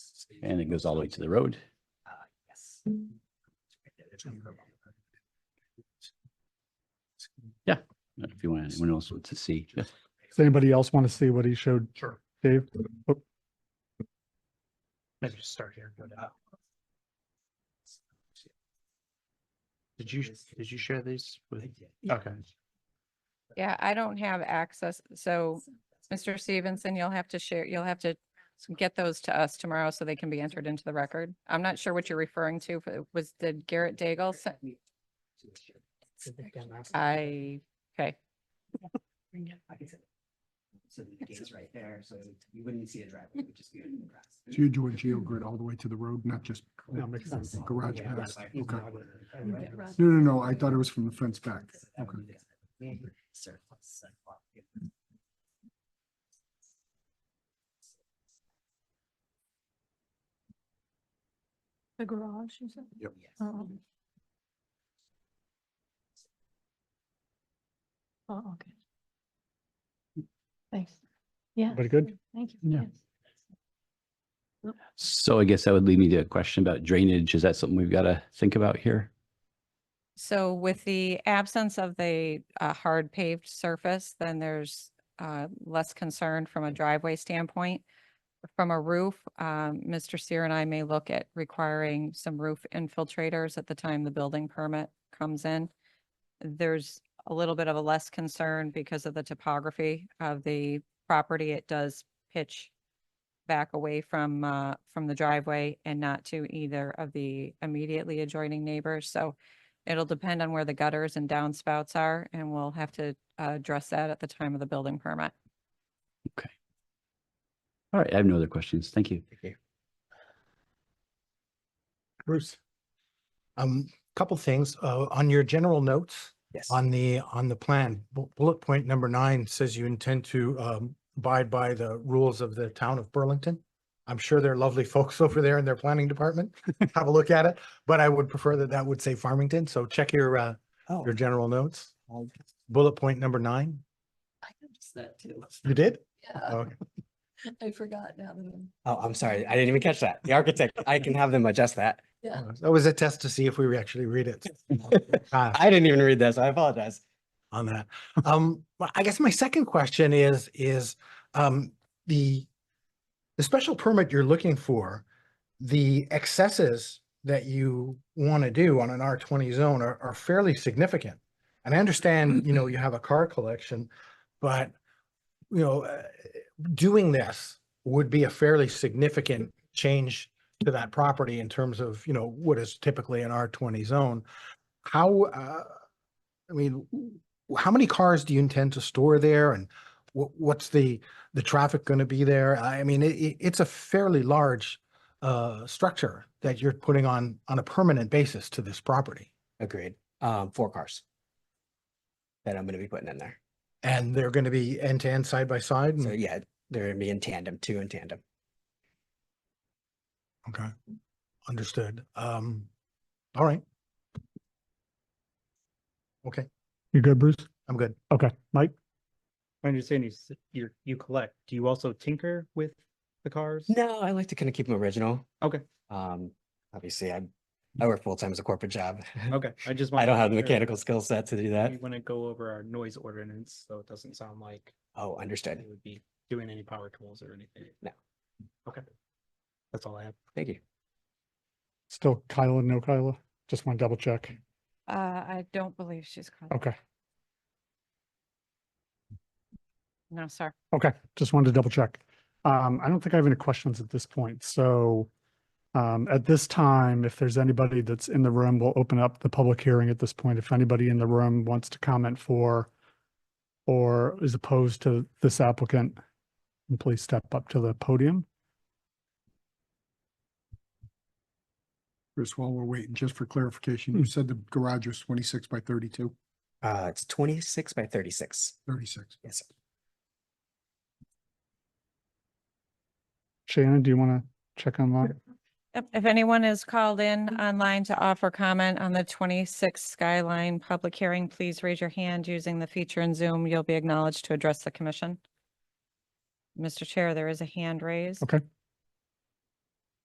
and it goes all the way to the road. Yes. If you want, anyone else wants to see. Does anybody else want to see what he showed? Sure. Dave? Maybe just start here. and go down. Did you, did you share these with? Okay. Yeah, I don't have access, so Mr. Stevenson, you'll have to share, you'll have to get those to us tomorrow so they can be entered into the record. I'm not sure what you're referring to, but it was, did Garrett Daigle? send- I, okay, So the gate's right there, so you wouldn't see a driveway, it would just be in the grass. So you're doing geogrid all the way to the road, not just, That makes sense. Garage Yeah, pass, like- okay. no, no, no, I thought it was from the fence back. Okay. Surplus sidewalk. The garage, you said? Yep. Yes. Oh, oh, okay. Thanks. Yeah. Very good. Thank you. Yeah. Yes. So I guess that would lead me to a question about drainage. Is that something we've got to think about here? so with the absence of the uh, hard paved surface, then there's uh, less concern from a driveway standpoint. From a roof, um, Mr. Seer and I may look at requiring some roof infiltrators at the time the building permit comes in. There's a little bit of a less concern because of the topography of the property. It does pitch back away from, uh, from the driveway and not to either of the immediately adjoining neighbors. So it'll depend on where the gutters and downspouts are, and we'll have to uh, address that at the time of the building permit. All right, I have no other questions. Thank you. Bruce? Um, couple things, uh, on your general notes, Yes. on the, on the plan, bu- bullet point number nine says you intend to, um, abide by the rules of the town of Burlington. I'm sure they're lovely folks over there in their planning department. Have a look at it, but I would prefer that that would say Farmington, so check your, uh, Oh, your general notes. I Bullet point number nine, noticed that too. you did? Yeah, Okay. I forgot now that I'm. oh, I'm sorry, I didn't even catch that. The architect, I can have them adjust that. Yeah. That was a test to see if we actually read it. Ah. I didn't even read this, I apologize. on that. Um, well, I guess my second question is, is, um, the, the special permit you're looking for, the excesses that you want to do on an R twenty zone are, are fairly significant. And I understand, you know, you have a car collection, but, you know, uh, doing this would be a fairly significant change to that property in terms of, you know, what is typically an R twenty zone. How, uh, I mean, w- how many cars do you intend to store there and what, what's the, the traffic going to be there? I mean, it- it, it's a fairly large uh, structure that you're putting on, on a permanent basis to this property. Agreed, um, four cars. That I'm gonna be putting in there. And they're going to be end to end, side by side. Hmm. So and- yeah, they're gonna be in tandem, two in tandem. Okay. Understood. Um, all right. Okay, You good, Bruce? I'm good. Okay, Mike? My understanding is that you you collect. Do you also tinker with the cars? No, I like to kind of keep them original. Okay. Um, obviously, I, I work full time as a corporate job. Okay, I just want. I don't have the mechanical skill set to do that. We want to go over our noise ordinance, so it doesn't sound like Oh, we understood. would be doing any power tools or anything. No. Okay. That's all I have. Thank you. Still Kyla, no Kyla? Just want to double check. Uh, I don't believe she's. calling. Okay, No, sir. okay. Just wanted to double check. Um, I don't think I have any questions at this point, so um, at this time, if there's anybody that's in the room, we'll open up the public hearing at this point. If anybody in the room wants to comment for or is opposed to this applicant, please step up to the podium. Chris, while we're waiting, just for clarification, Hmm. you said the garage was twenty-six by 32, Uh, it's twenty-six by thirty-six. 36. Yes. sir. Shannon, do you want to check online? Yep, If anyone is called in online to offer comment on the twenty-six Skyline public hearing, please raise your hand using the feature in Zoom. You'll be acknowledged to address the commission. Mr. Chair, there is a hand raised. Okay.